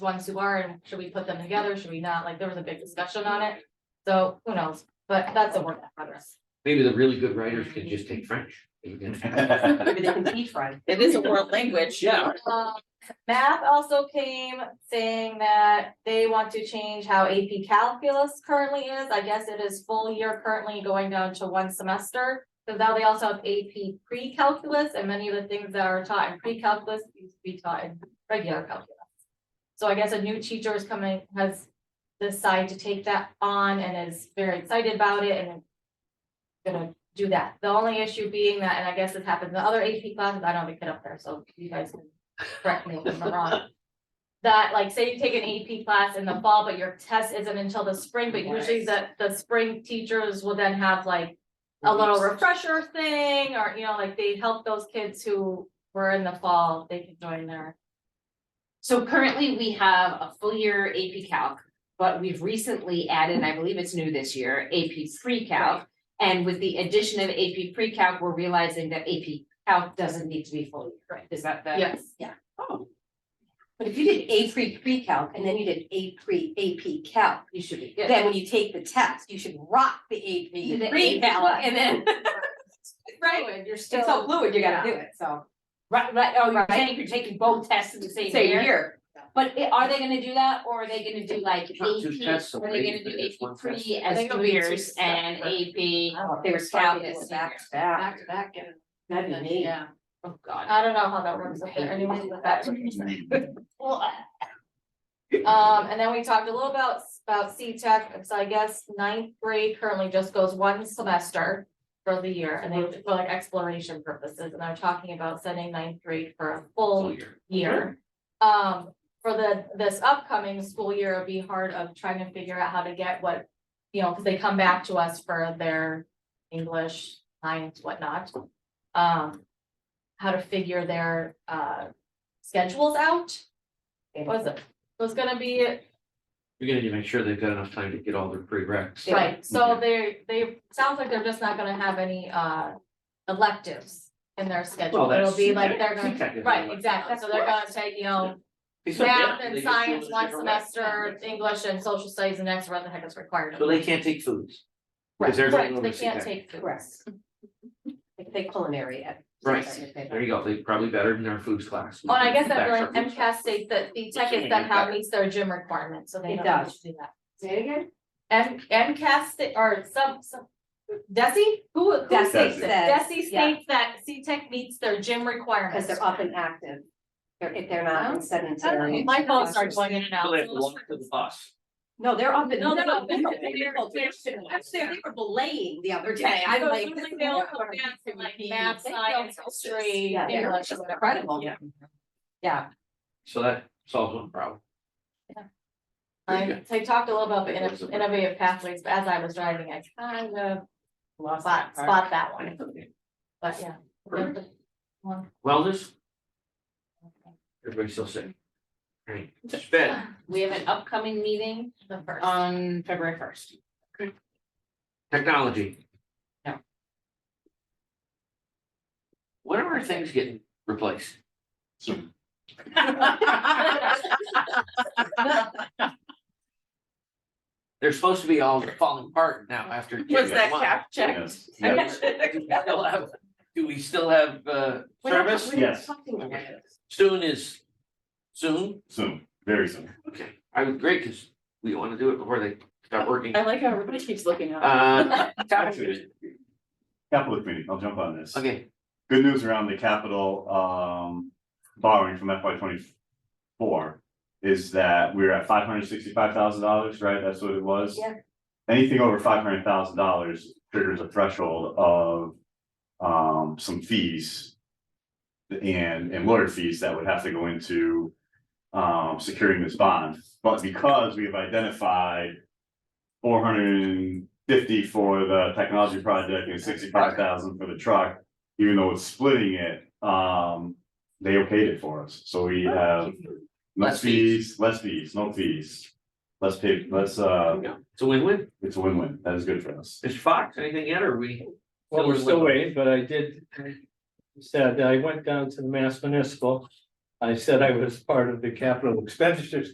ones who are, and should we put them together, should we not, like, there was a big discussion on it. So who knows, but that's a work in progress. Maybe the really good writers could just take French. You can- Maybe they can teach French. It is a world language. Yeah. Um, Math also came saying that they want to change how AP calculus currently is. I guess it is full year currently going down to one semester. Because now they also have AP pre-calculus and many of the things that are taught in pre-calculus used to be taught in regular calculus. So I guess a new teacher is coming, has decided to take that on and is very excited about it and gonna do that. The only issue being that, and I guess it happens in other AP classes, I don't have a kid up there, so you guys can correct me if I'm wrong. That like, say you take an AP class in the fall, but your test isn't until the spring, but usually the, the spring teachers will then have like a little refresher thing, or, you know, like they help those kids who were in the fall, they can join their, So currently we have a full year AP Calc, but we've recently added, and I believe it's new this year, AP Pre-Calc. And with the addition of AP Pre-Calc, we're realizing that AP Calc doesn't need to be full year. Right. Is that the? yes. Oh, But if you did A pre pre-calc and then you did A pre AP calc, you should be good. then when you take the test, you should rock the A You did pre AP pre-calc calc. and then. Right, and you're It's so fluid, you gotta yeah. do it, so. Right, right, oh, you're Right. saying you're taking both tests in the same year? But i- are they gonna do that, or are they gonna do like AP, Not two tests, are they gonna right? do It's one AP pre I as think two it'll be two years and separate. AP? Oh, They probably were scouted as back to seniors. back. to back and. That'd be neat. Yeah, Oh, God. I don't know how that works, if there anyone with that. Well, Um, and then we talked a little about, about C tech, so I guess ninth grade currently just goes one semester for the year, and they, for like exploration purposes, and I'm talking about setting ninth grade for a full year. Um, for the, this upcoming school year, it'd be hard of trying to figure out how to get what, you know, cause they come back to us for their English, science, whatnot. Um, how to figure their, uh, schedules out, was, was gonna be You're gonna need to make sure they've got enough time to get all their prereqs. Right, so they, they, sounds like they're just not gonna have any uh electives in their Well, schedule, it'll that's- be like they're that's gonna, technically right, what- exactly, so they're gonna take, you know. They said, yeah, Math they and just do it science a one different way. semester, English and social studies the next, whatever the heck is required. of So them. they can't take foods. Right, Because they're not correct, going they to see can't that. take. food. Correct. If they culinary at. Right. There you go. They probably better than our foods class. Oh, and I guess that That's really, our foods MCAS states that the tech is somehow meets their gym requirements, so they It don't have to does. do that. Say it again? M, MCAS, sta- or some, some, Desi, E? who, who Desi states it? E says, Desi yeah. E states that C Tech meets their gym Because requirements. they're up and active. They're, if they're not in sedentary. Okay. My phone starts going in and class. out. So they have so to let's- walk to the bus. No, they're up and. No, they're up and- No, they're up and- Actually, they were belaying the other day. I'm So like. it's this like is they all not come what I'm back to, like, thinking. math, They don't science, help us. history, Yeah, they're English, just whatever. incredible. Yeah. Yeah. So that solves one problem. I, so I talked a little about the inno- innovative pathways, but as I was driving, I kind of Lost spot, that part. spot that one, but yeah. One. Wellness, everybody's still sick. Right, it's bad. We have an upcoming meeting The first. um, on February first. Technology. No. When are our things getting replaced? They're supposed to be all falling apart now after. Was that one. cap checked? Yes. Do we still have, do we still have, uh, We're not- service? we're not Yes. talking about it. Soon is soon? Soon, very soon. Okay, I would, great, because we want to do it before they start working. I like how everybody keeps looking up. Uh, topic- Capital committee, I'll jump on this. okay, Good news around the capital um borrowing from FY twenty-four is that we're at five hundred sixty-five thousand dollars, right? That's what it was? Yeah. Anything over five hundred thousand dollars triggers a threshold of um some fees and and lawyer fees that would have to go into um securing this bond. But because we've identified four hundred and fifty for the technology project and sixty-five thousand for the truck, even though it's splitting it, um, they okayed it for us, so we have. Less Less fees. fees, less fees, no fees, less pay, less, uh, it's a win-win. it's a win-win, that is good for us. Mr. Fox, anything yet, or we? Well, we're still waiting, but I did. Said, I went down to the Mass Municipal. I said I was part of the capital expenditures